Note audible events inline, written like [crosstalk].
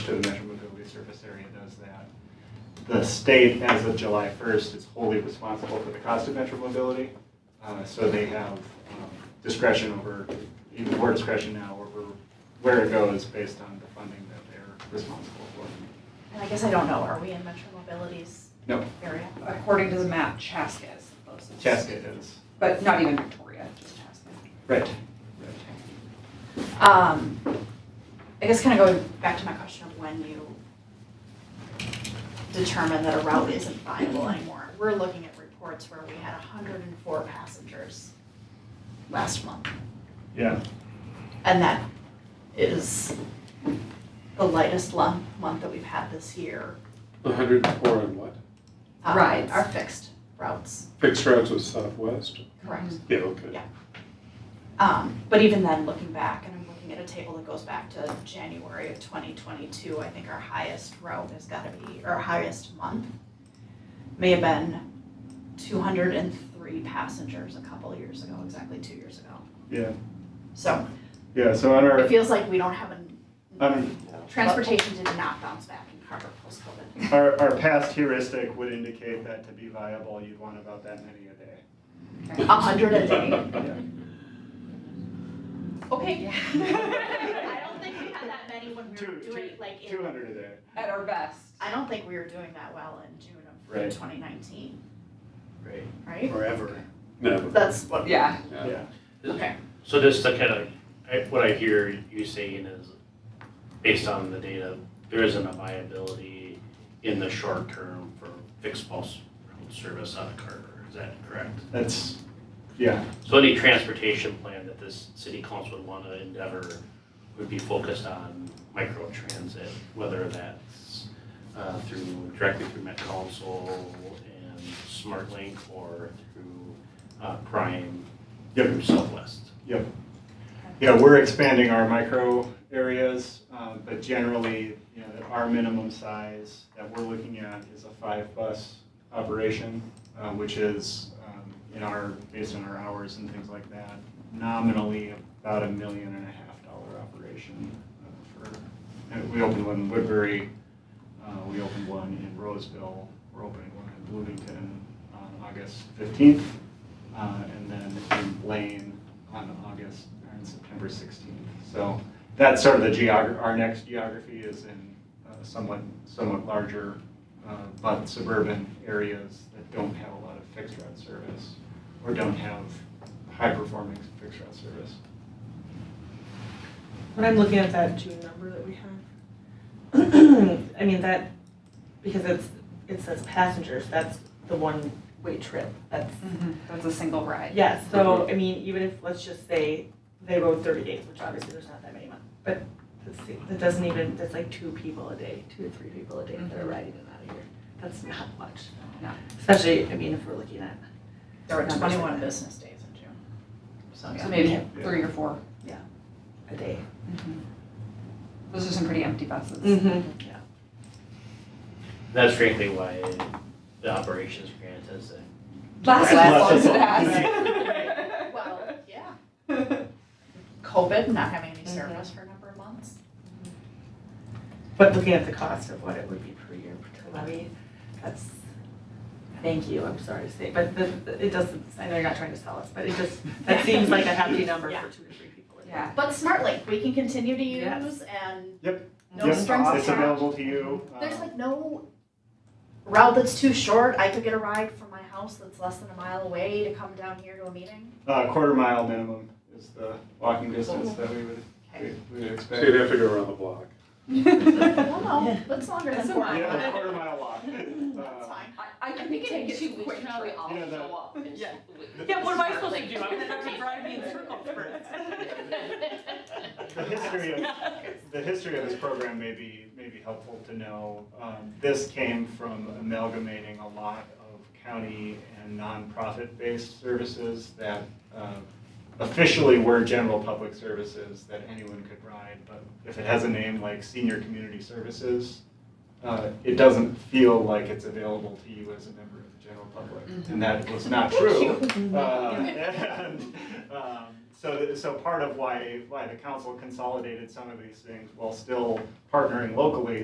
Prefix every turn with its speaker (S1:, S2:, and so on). S1: the Metro Mobility Surface Area does that. The state, as of July 1st, is wholly responsible for the cost of Metro Mobility, uh, so they have um, discretion over, even more discretion now over where it goes based on the funding that they're responsible for.
S2: And I guess I don't know, are we in Metro Mobility's
S1: No,
S2: area?
S3: According to the map, Chaska is the closest.
S1: Chaska is,
S3: But not even Victoria, just Chaska.
S1: right.
S2: Um, I guess kind of going back to my question of when you determine that a route isn't viable anymore. We're looking at reports where we had hundred and four passengers last month.
S1: Yeah.
S2: And that is the lightest lump, month that we've had this year.
S4: hundred and four on what?
S2: Uh,
S3: Rides.
S2: Our fixed routes,
S4: Fixed routes was southwest?
S2: correct?
S4: Yeah, okay.
S2: Um, but even then, looking back, and I'm looking at a table that goes back to January of twenty twenty-two, I think our highest row has gotta be, or highest month may have been two hundred and three passengers a couple of years ago, exactly two years ago.
S1: Yeah,
S2: So
S1: yeah, so on our,
S2: it feels like we don't have a,
S1: on
S2: transportation did not bounce back in Carver post-COVID.
S1: our, our past heuristic would indicate that to be viable, you'd want about that many a day.
S2: A hundred a day.
S1: [laughs]
S4: [laughs]
S1: Yeah.
S2: Okay. [laughs]
S3: Yeah.
S2: I don't think we had that many when we were
S1: Two-
S2: doing like in
S1: Two hundred a day.
S3: At our best.
S2: I don't think we were doing that well in June
S1: Right.
S2: of twenty nineteen,
S5: Right,
S2: right?
S5: forever.
S4: No,
S2: That's what.
S3: Yeah.
S4: yeah.
S2: Okay,
S5: So just to kind of, I- what I hear you saying is, based on the data, there isn't a viability in the short term for fixed pulse route service out of Carver, is that correct?
S1: That's, yeah,
S5: So any transportation plan that this city council would want to endeavor would be focused on micro transit, whether that's uh, through, directly through Met Council and SmartLink or through uh, Prime, through Southwest.
S1: yeah, we're expanding our micro areas, um, but generally, you know, our minimum size that we're looking at is a five bus operation, uh, which is, um, in our, based on our hours and things like that, nominally about a million and a half dollar operation uh, for, and we opened one in Woodbury, uh, we opened one in Roseville, we're opening one in Bloomington on August fifteenth, uh, and then in Blaine on August, or on September 16th. So that's sort of the geog, our next geography is in uh, somewhat, somewhat larger, uh, but suburban areas that don't have a lot of fixed route service or don't have high-performing fixed route service.
S6: When I'm looking at that June number that we have, [clears throat] I mean, that, because it's, it says passengers, that's the one-way trip, that's,
S3: Mm-hmm. That's a single ride.
S6: yeah, so, I mean, even if, let's just say, they rode thirty days, which obviously there's not that many months, but let's see, that doesn't even, that's like two people a day, two to three people a day that are riding in that year, that's not much.
S3: No.
S6: Especially, I mean, if we're looking at,
S2: there were
S6: Numbers
S2: twenty-one
S6: like that.
S2: business days in June. So,
S3: So
S2: yeah.
S3: maybe three or four. Mm-hmm.
S6: a day.
S3: Those are some pretty empty buses.
S6: Mm-hmm.
S5: That's frankly why the operations grant is a
S3: Last
S1: Last
S3: [laughs] as long
S1: as
S3: as it
S2: long. [laughs]
S3: has.
S2: Well, yeah. Mm-hmm. COVID, not having any service for a number of months.
S6: But looking at the cost of what it would be per year to levy, that's, thank you, I'm sorry to say, but the, it doesn't, I know you're not trying to sell us, but it just, that seems like a hefty number
S2: Yeah.
S6: for two to three people.
S3: [laughs] Yeah.
S2: But SmartLink, we can continue to use
S6: Yes.
S2: and
S1: Yep.
S2: no
S1: Yep,
S2: strings
S1: It's
S2: attached.
S1: available to you. uh,
S2: There's like no route that's too short. I could get a ride from my house that's less than a mile away to come down here to a meeting.
S1: A Uh, quarter mile minimum is the walking distance that we would,
S2: Okay.
S1: we would
S4: So you'd
S1: expect.
S4: have to go around the block.
S2: No, [laughs] no, that's longer than
S3: That's a
S2: four
S3: mile.
S1: Yeah, a
S2: miles.
S1: quarter mile
S6: [laughs]
S1: walk.
S2: That's
S1: Uh,
S2: fine.
S3: I, I
S7: I
S3: can
S7: think
S3: think
S7: it
S3: it
S7: takes
S3: too
S7: two weeks,
S3: quick,
S7: now we all
S1: You know, that-
S7: show up and
S6: Yeah.
S7: just-
S6: Yeah, what am I supposed to do? I'm gonna have to drive me in circles first.
S1: The history of, the history of this program may be, may be helpful to know. Um, This came from amalgamating a lot of county and nonprofit-based services that uh, officially were general public services that anyone could ride, but if it has a name like Senior Community Services, uh, it doesn't feel like it's available to you as a member [laughs] of the general public. And that was not true. Uh, And um, So, so part of why, why the council consolidated some of these things while still partnering locally